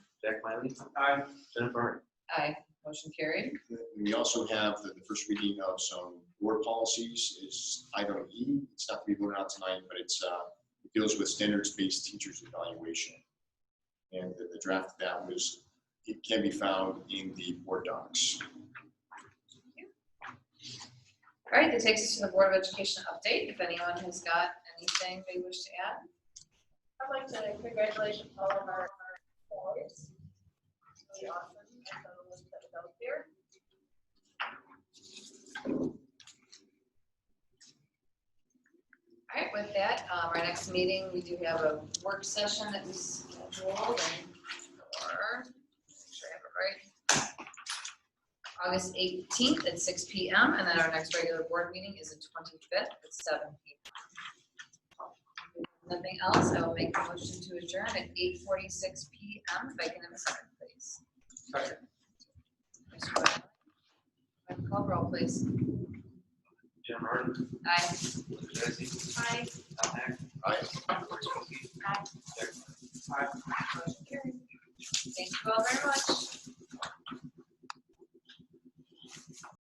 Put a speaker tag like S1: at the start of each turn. S1: Jack Miley,
S2: Aye.
S1: Jennifer,
S3: Aye, motion carried.
S4: We also have the the first reading of some board policies is item E. It's not to be voted on tonight, but it's, uh, it deals with standards-based teachers evaluation. And the the draft of that was, it can be found in the board docs.
S3: All right, that takes us to the Board of Education update, if anyone has got anything they wish to add.
S5: I'd like to congratulate all of our our employees. It's Really awesome. and so let's put it out there.
S3: All right, with that, um, our next meeting, we do have a work session that we scheduled and for, make sure I have it right. August eighteenth at six P M, and then our next regular board meeting is the twenty-fifth at seven P M. Nothing else, I will make a motion to adjourn at eight forty-six P M, if I can have a second, please.
S2: Second.
S3: Mr. Whitmore. Call roll, please.
S1: Jim Martin,
S3: Aye.
S1: Linda Jesse,
S5: Hi.
S1: Tom Hack.
S4: Aye.
S1: Lori Scruggs,
S5: Hi.
S1: Jack
S3: Thank you all very much.